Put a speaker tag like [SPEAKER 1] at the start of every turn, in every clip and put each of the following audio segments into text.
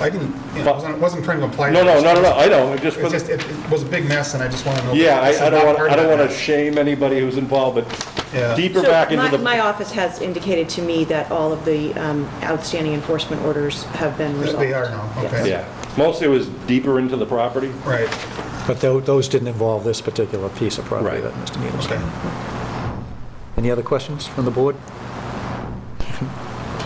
[SPEAKER 1] I didn't, you know, I wasn't, wasn't trying to imply.
[SPEAKER 2] No, no, no, no, no, I know, it just,
[SPEAKER 1] It's just, it it was a big mess, and I just want to know.
[SPEAKER 2] yeah, I
[SPEAKER 1] It's
[SPEAKER 2] I
[SPEAKER 1] not
[SPEAKER 2] don't want,
[SPEAKER 1] part
[SPEAKER 2] I
[SPEAKER 1] of
[SPEAKER 2] don't
[SPEAKER 1] that
[SPEAKER 2] want to
[SPEAKER 1] mess.
[SPEAKER 2] shame anybody who's involved, but
[SPEAKER 1] Yeah.
[SPEAKER 2] deeper back into
[SPEAKER 3] So my, my
[SPEAKER 2] the,
[SPEAKER 3] office has indicated to me that all of the um, outstanding enforcement orders have been resolved.
[SPEAKER 1] They are now,
[SPEAKER 3] Yes.
[SPEAKER 1] okay.
[SPEAKER 2] yeah, mostly it was deeper into the property.
[SPEAKER 1] Right,
[SPEAKER 4] But tho- those didn't involve this particular piece of property
[SPEAKER 2] Right.
[SPEAKER 4] that Mr. Neal was
[SPEAKER 1] okay.
[SPEAKER 4] saying. Any other questions from the board?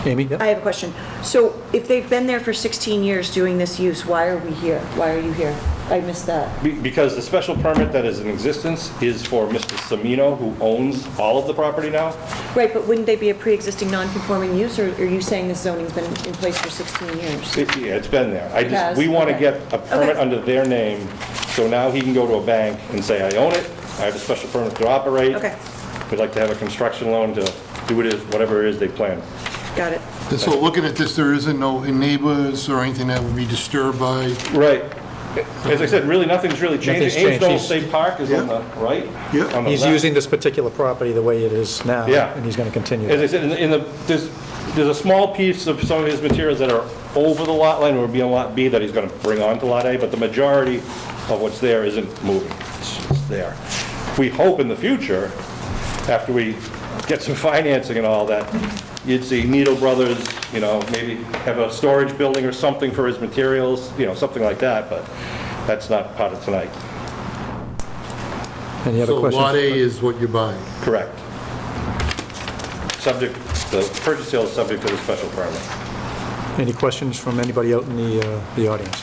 [SPEAKER 4] Amy? yep.
[SPEAKER 3] I have a question. So if they've been there for 16 years doing this use, why are we here? Why are you here? I missed that.
[SPEAKER 2] Be- Because the special permit that is in existence is for Mr. Semino, who owns all of the property now.
[SPEAKER 3] Right, but wouldn't they be a pre-existing non-conforming use, or are you saying this zoning's been in place for 16 years?
[SPEAKER 2] It- Yeah, it's been there. I
[SPEAKER 3] has?
[SPEAKER 2] just, we want to
[SPEAKER 3] Okay.
[SPEAKER 2] get a permit
[SPEAKER 3] Okay.
[SPEAKER 2] under their name, so now he can go to a bank and say, I own it, I have a special permit to operate.
[SPEAKER 3] Okay.
[SPEAKER 2] We'd like to have a construction loan to do it as, whatever it is they plan.
[SPEAKER 3] Got it.
[SPEAKER 5] So looking at this, there isn't no neighbors or anything that would be disturbed by,
[SPEAKER 2] Right. As I said, really, nothing's really changed.
[SPEAKER 4] Nothing's
[SPEAKER 2] Ames
[SPEAKER 4] changed.
[SPEAKER 2] Knoll
[SPEAKER 4] He's-
[SPEAKER 2] State Park is on the right.
[SPEAKER 5] Yeah.
[SPEAKER 2] on the
[SPEAKER 4] He's
[SPEAKER 2] left.
[SPEAKER 4] using this particular property the way it is now.
[SPEAKER 2] Yeah.
[SPEAKER 4] And he's going to continue.
[SPEAKER 2] As I
[SPEAKER 4] that.
[SPEAKER 2] said, in the- in the, there's, there's a small piece of some of his materials that are over the lot line, or be on lot B, that he's gonna bring on to lot A, but the majority of what's there isn't moving. It's it's there. We hope in the future, after we get some financing and all that, you'd see Needle Brothers, you know, maybe have a storage building or something for his materials, you know, something like that, but that's not part of tonight.
[SPEAKER 4] Any other
[SPEAKER 5] so Lot A
[SPEAKER 4] questions?
[SPEAKER 5] is what you're buying.
[SPEAKER 2] Correct. Subject, the purchase sale is subject to the special permit.
[SPEAKER 4] Any questions from anybody out in the, uh, the audience?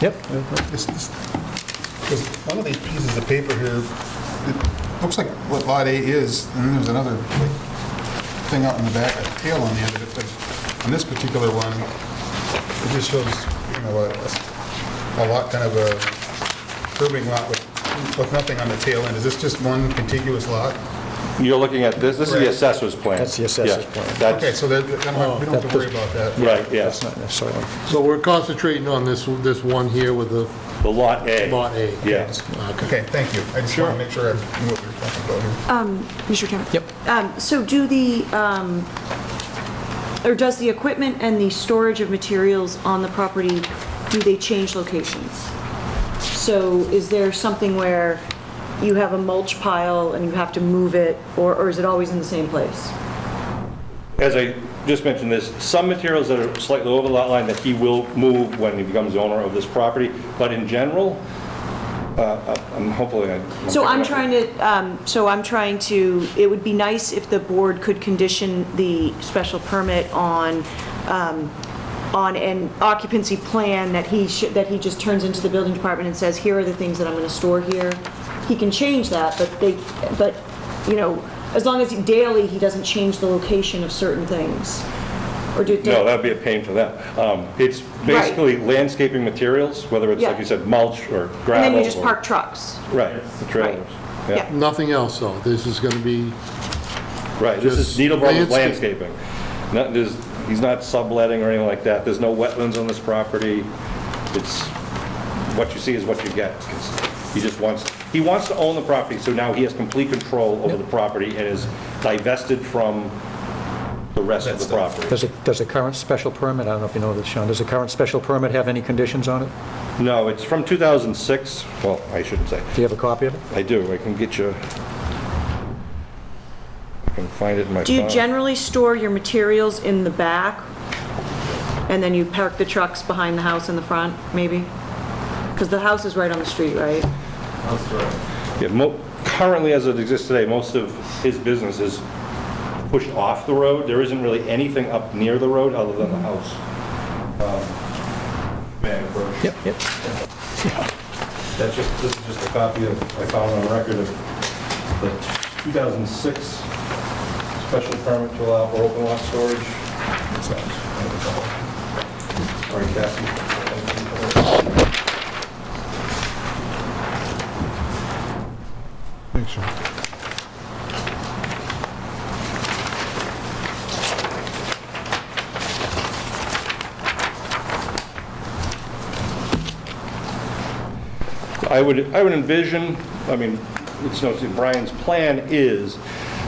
[SPEAKER 4] Yep,
[SPEAKER 1] This- this- There's one of these pieces of paper here, it looks like what Lot A is, and then there's another like, thing out in the back, a tail on the end of it, but on this particular one, it just shows, you know, a- a lot, kind of a curving lot with, with nothing on the tail end. Is this just one contiguous lot?
[SPEAKER 2] You're looking at, this, this is the
[SPEAKER 1] Right.
[SPEAKER 2] assessor's plan.
[SPEAKER 4] That's the assessor's
[SPEAKER 2] Yeah,
[SPEAKER 4] plan.
[SPEAKER 1] Okay,
[SPEAKER 2] That's,
[SPEAKER 1] so that, Oh, that might- we don't have to worry about that.
[SPEAKER 2] right, yes,
[SPEAKER 4] that's not necessarily,
[SPEAKER 5] So we're concentrating on this, this one here with the
[SPEAKER 2] the Lot A.
[SPEAKER 5] Lot A.
[SPEAKER 2] Yeah.
[SPEAKER 1] Okay, thank you. I just want to make sure I knew what we were talking about here.
[SPEAKER 3] Mr. Chairman?
[SPEAKER 4] yep.
[SPEAKER 3] Um, So do the, um, or does the equipment and the storage of materials on the property, do they change locations? So is there something where you have a mulch pile and you have to move it, or or is it always in the same place?
[SPEAKER 2] As I just mentioned, there's some materials that are slightly over the lot line that he will move when he becomes owner of this property, but in general, uh, I'm hopefully. I-
[SPEAKER 3] So I'm trying to, um, so I'm trying to, it would be nice if the board could condition the special permit on, um, on an occupancy plan that he should, that he just turns into the building department and says, here are the things that I'm going to store here. He can change that, but they, but, you know, as long as he- daily, he doesn't change the location of certain things. Or do,
[SPEAKER 2] No, that'd be a pain for them. Um, It's basically landscaping materials, whether it's, like
[SPEAKER 3] Yeah.
[SPEAKER 2] you said, mulch or gravel.
[SPEAKER 3] and then you just
[SPEAKER 2] or-
[SPEAKER 3] park trucks.
[SPEAKER 2] Right, the trailers.
[SPEAKER 3] Yeah.
[SPEAKER 5] Nothing else, though. This is going to be,
[SPEAKER 2] Right, this is
[SPEAKER 5] Just
[SPEAKER 2] Needle Brothers
[SPEAKER 5] landscape.
[SPEAKER 2] landscaping. Not, there's, he's not subletting or anything like that, there's no wetlands on this property. It's, what you see is what you get. It's- He just wants, he wants to own the property, so now he has complete control over the property and is divested from the rest of the property.
[SPEAKER 4] Does it, does the current special permit, I don't know if you know this, Sean, does the current special permit have any conditions on it?
[SPEAKER 2] No, it's from 2006, well, I shouldn't say,
[SPEAKER 4] Do you have a copy of it?
[SPEAKER 2] I do, I can get you, I can find it in my
[SPEAKER 3] Do you
[SPEAKER 2] file.
[SPEAKER 3] generally store your materials in the back? And then you park the trucks behind the house in the front, maybe? Because the house is right on the street, right?
[SPEAKER 2] Yeah, mo- currently, as it exists today, most of his business is pushed off the road. There isn't really anything up near the road other than the house. Um, May I approach?
[SPEAKER 4] Yep, yep.
[SPEAKER 2] That's just, this is just a copy of, I found on record of the 2006 special permit to allow for open lot storage. Sorry, Cassie. I would, I would envision, I mean, it's, no secret, Brian's plan is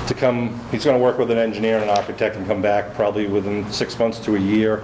[SPEAKER 2] to come, he's going to work with an engineer and an architect and come back probably within six months to a year